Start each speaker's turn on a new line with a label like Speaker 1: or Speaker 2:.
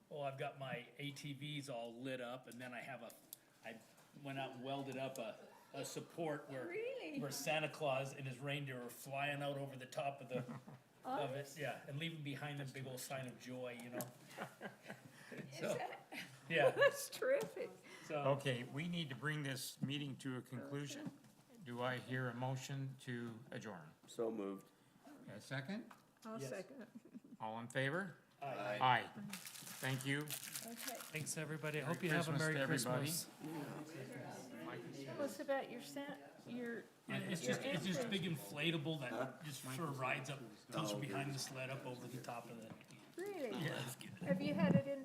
Speaker 1: oh, got my ATVs all lit up and then I have a, I went out and welded up a, a support where.
Speaker 2: Really?
Speaker 1: Where Santa Claus and his reindeer are flying out over the top of the, of it, yeah, and leaving behind a big old sign of joy, you know? So, yeah,
Speaker 2: That's terrific.
Speaker 1: so,
Speaker 3: Okay, we need to bring this meeting to a conclusion. Do I hear a motion to adjourn?
Speaker 4: So moved.
Speaker 3: A second?
Speaker 2: I'll
Speaker 1: Yes.
Speaker 2: second it.
Speaker 3: All in favor?
Speaker 1: I,
Speaker 3: Aye. Thank you.
Speaker 2: Okay.
Speaker 5: Thanks, everybody. I hope you have a
Speaker 3: Christmas to
Speaker 5: Merry
Speaker 3: everybody.
Speaker 5: Christmas.
Speaker 2: Tell us about your sa- your,
Speaker 1: it's just, it's just big inflatable that just sort of rides up, goes behind the sled up over the top of the.
Speaker 2: really? Have you had it in